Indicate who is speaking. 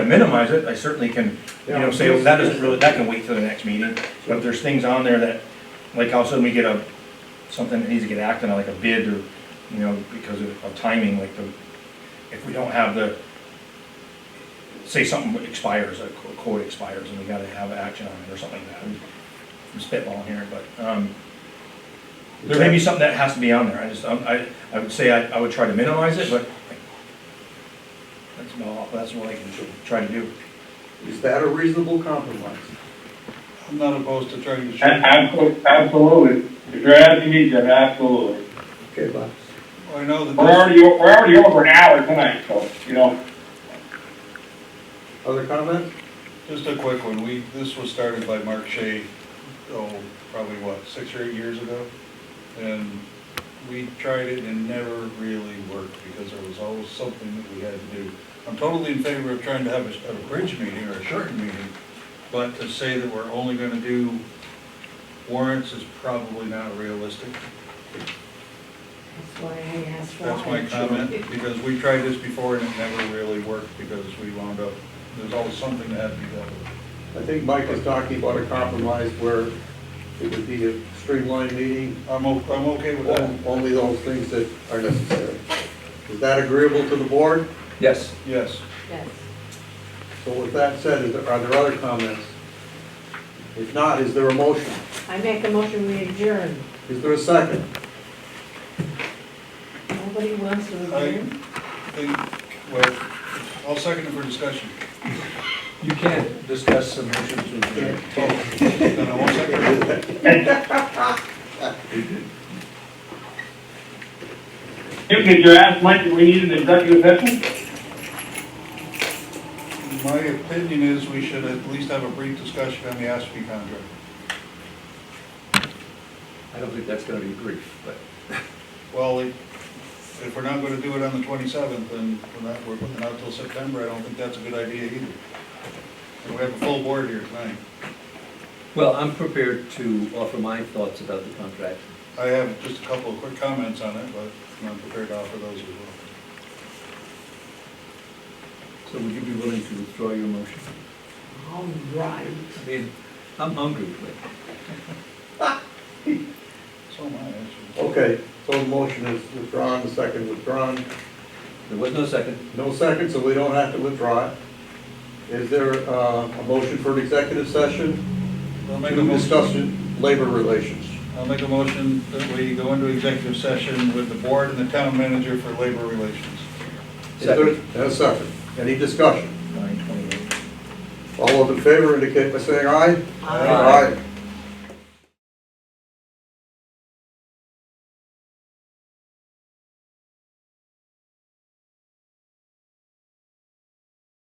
Speaker 1: minimize it, I certainly can, you know, say, well, that doesn't really, that can wait till the next meeting. But if there's things on there that, like all of a sudden we get a, something that needs to get acted on, like a bid or, you know, because of of timing, like the, if we don't have the, say something expires, a qu- quote expires, and we gotta have action on it or something like that. I'm spitballing here, but, um, there may be something that has to be on there, I just, I'm- I, I would say I, I would try to minimize it, but that's about, that's what I can try to do.
Speaker 2: Is that a reasonable compromise?
Speaker 3: I'm not opposed to trying to
Speaker 4: A-
Speaker 3: shoot.
Speaker 4: abso- Absolutely. If you're asking me, Jim, absolutely.
Speaker 2: Okay, Bob.
Speaker 3: I know that
Speaker 4: We're
Speaker 3: this-
Speaker 4: already, we're already over an hour tonight, so, you know.
Speaker 2: Other comments?
Speaker 3: Just a quick one, we, this was started by Mark Shea, oh, probably what, six or eight years ago? And we tried it and it never really worked because there was always something that we had to do. I'm totally in favor of trying to have a, a bridge meeting or a shortened meeting, but to say that we're only gonna do warrants is probably not realistic.
Speaker 5: That's why I asked why.
Speaker 3: That's my comment, because we tried this before and it never really worked because we wound up, there's always something that had to be done.
Speaker 2: I think Mike was talking about a compromise where it would be a streamlined meeting,
Speaker 3: I'm, o- I'm okay with that.
Speaker 2: on- only those things that are necessary. Is that agreeable to the board?
Speaker 6: Yes.
Speaker 3: Yes,
Speaker 5: Yes.
Speaker 2: So with that said, is there- are there other comments? If not, is there a motion?
Speaker 5: I make a motion, we adjourn.
Speaker 2: Is there a second?
Speaker 5: Nobody wants to adjourn?
Speaker 3: think, well, I'll second it for discussion.
Speaker 6: You can't discuss submissions with the...
Speaker 3: Oh, Then I won't second it.
Speaker 4: Jim, did you ask Mike if we need an executive session?
Speaker 3: My opinion is we should at least have a brief discussion on the ASP contract.
Speaker 6: I don't think that's gonna be brief, but...
Speaker 3: Well, if if we're not gonna do it on the twenty-seventh, then we're not, we're putting it out till September, I don't think that's a good idea either. And we have a full board here tonight.
Speaker 6: Well, I'm prepared to offer my thoughts about the contract.
Speaker 3: I have just a couple of quick comments on it, but I'm prepared to offer those as well.
Speaker 6: So would you be willing to withdraw your motion?
Speaker 5: All right.
Speaker 6: I mean, I'm hungry, but...
Speaker 3: So am I, actually.
Speaker 2: Okay, so the motion is withdrawn, the second withdrawn.
Speaker 6: There was no second.
Speaker 2: No second, so we don't have to withdraw it. Is there uh, a motion for an executive session
Speaker 3: I'll make a
Speaker 2: to discuss
Speaker 3: motion,
Speaker 2: labor relations?
Speaker 3: I'll make a motion that we go into executive session with the board and the town manager for labor relations.
Speaker 2: Is there- and A second. Any discussion?
Speaker 1: Nine twenty-eight.
Speaker 2: All those in favor indicate by saying aye.
Speaker 5: Aye.
Speaker 2: Aye.